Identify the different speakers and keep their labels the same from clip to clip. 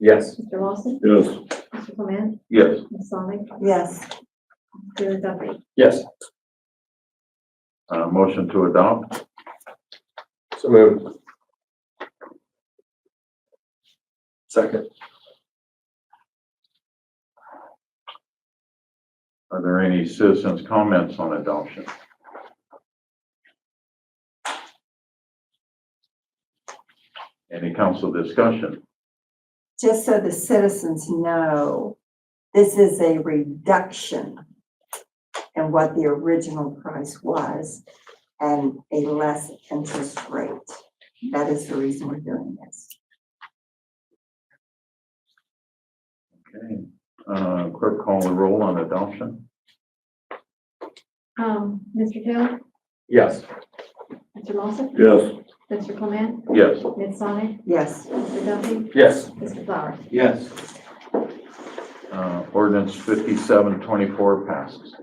Speaker 1: Yes.
Speaker 2: Mr. Lawson,
Speaker 3: Yes.
Speaker 2: Mr. Clement,
Speaker 3: Yes.
Speaker 2: Ms. Sonic,
Speaker 4: yes,
Speaker 2: Mr. Duffy.
Speaker 1: Yes.
Speaker 3: Uh, motion to adopt?
Speaker 1: So moved. Second.
Speaker 3: Are there any citizens' comments on adoption? Any council discussion?
Speaker 4: just so the citizens know, this is a reduction in what the original price was and a less interest rate. That is the reason we're doing this.
Speaker 3: Okay, uh, clerk call the roll on adoption?
Speaker 2: Um, Mr. Taylor,
Speaker 1: Yes.
Speaker 2: Mr. Lawson,
Speaker 3: Yes.
Speaker 2: Mr. Clement,
Speaker 3: Yes.
Speaker 2: Ms. Sonic,
Speaker 4: Yes,
Speaker 2: Mr. Duffy,
Speaker 1: Yes.
Speaker 2: Mr. Flowers.
Speaker 1: Yes.
Speaker 3: Uh, ordinance fifty-seven twenty-four passes.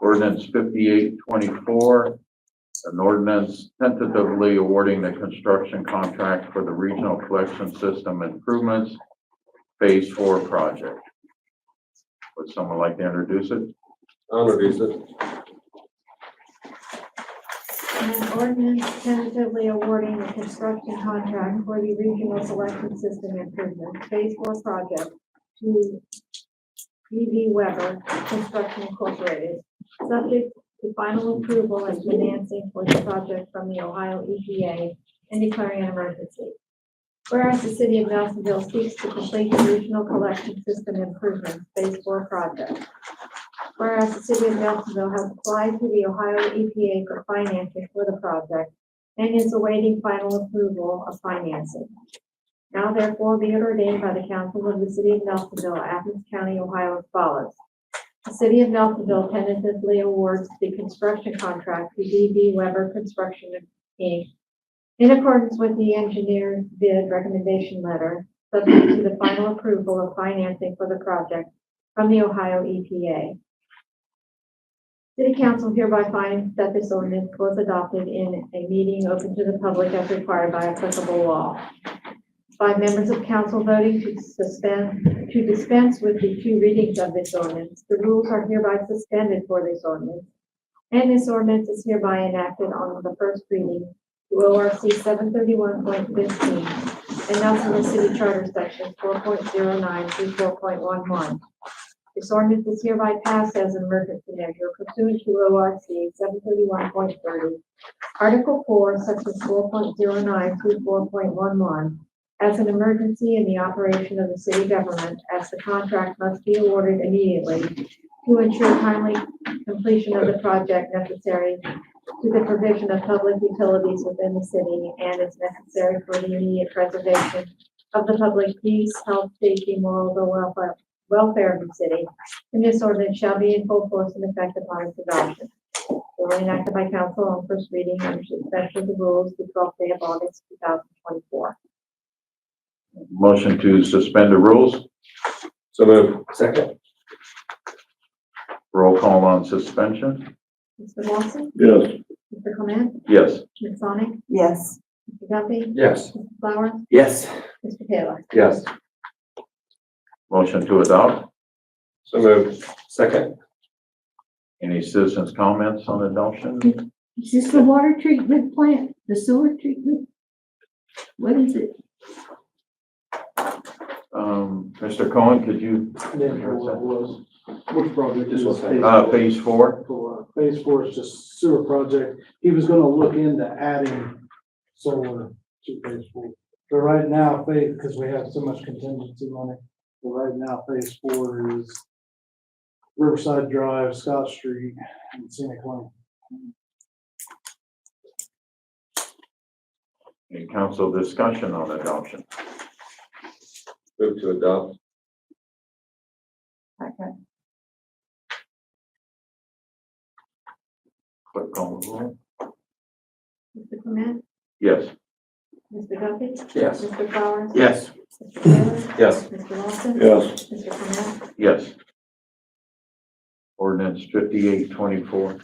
Speaker 3: Ordinance fifty-eight twenty-four, an ordinance tentatively awarding the construction contract for the Regional Collection System Improvements Phase Four project. Would someone like to introduce it?
Speaker 1: I'll introduce it.
Speaker 2: An ordinance tentatively awarding a construction contract for the regional selection system improvement phase four project to E.V. Weber Construction Incorporated, subject to final approval and financing for the project from the Ohio EPA and declaring an emergency. Whereas the city of Nelsonville seeks to complete the regional collection system improvement phase four project. Whereas the city of Nelsonville has applied to the Ohio EPA for financing for the project and is awaiting final approval of financing. Now therefore be it ordained by the council of the city of Nelsonville, Athens County, Ohio as follows. The city of Nelsonville tentatively awards the construction contract to DB Weber Construction Inc. In accordance with the engineer's bid recommendation letter, subject to the final approval of financing for the project from the Ohio E EPA. City council hereby finds that this ordinance was adopted in a meeting open to the public as required by applicable law. By members of council voting to suspend, to dispense with the two readings of this ordinance, the rules are hereby suspended for this ordinance. And this ordinance is hereby enacted on the first reading to ORC seven thirty-one point fifteen and Nelsonville City Charter Section four point zero nine through four point one one. This ordinance is hereby passed as an emergency measure pursuant to O R C seven thirty-one point thirty, Article four, section four point zero nine through four point one one, as an emergency in the operation of the city government, as the contract must be awarded immediately to ensure timely completion of the project necessary to the provision of public utilities within the city and is necessary for the immediate preservation of the public peace, health, safety, morals, or welfare, welfare of the city, and this ordinance shall be in full force and effect upon its adoption. Duly enacted by council on first reading under suspension of the rules the twelfth day of August, two thousand twenty-four.
Speaker 3: Motion to suspend the rules,
Speaker 1: So moved. Second.
Speaker 3: roll call on suspension?
Speaker 2: Mr. Lawson,
Speaker 3: Yes.
Speaker 2: Mr. Clement,
Speaker 3: Yes.
Speaker 2: Ms. Sonic,
Speaker 4: yes,
Speaker 2: Mr. Duffy,
Speaker 1: Yes.
Speaker 2: Mr. Flowers,
Speaker 1: Yes.
Speaker 2: Mr. Taylor.
Speaker 1: Yes.
Speaker 3: Motion to adopt.
Speaker 1: So moved. Second.
Speaker 3: Any citizens' comments on adoption?
Speaker 5: Is this the water treatment plant, the sewer treatment? What is it?
Speaker 3: Um, Mr. Cohen, could you,
Speaker 6: Then for what was, which project is
Speaker 1: Just one second.
Speaker 6: phase
Speaker 3: uh,
Speaker 6: four?
Speaker 3: phase four?
Speaker 6: For, uh, Phase four is just sewer project. He was gonna look into adding solar to phase four. But right now, phase, because we have so much contingency money, but right now, phase four is Riverside Drive, Scott Street, and Scenic Lane.
Speaker 3: Any council discussion on adoption?
Speaker 1: Move to adopt.
Speaker 4: okay,
Speaker 3: Clerk call the roll.
Speaker 2: Mr. Clement,
Speaker 3: Yes.
Speaker 2: Mr. Duffy,
Speaker 1: Yes.
Speaker 2: Mr. Flowers,
Speaker 1: Yes.
Speaker 2: Mr. Taylor,
Speaker 1: Yes.
Speaker 2: Mr. Lawson.
Speaker 3: Yes.
Speaker 2: Mr. Clement,
Speaker 3: Yes. Ordinance fifty-eight twenty-four.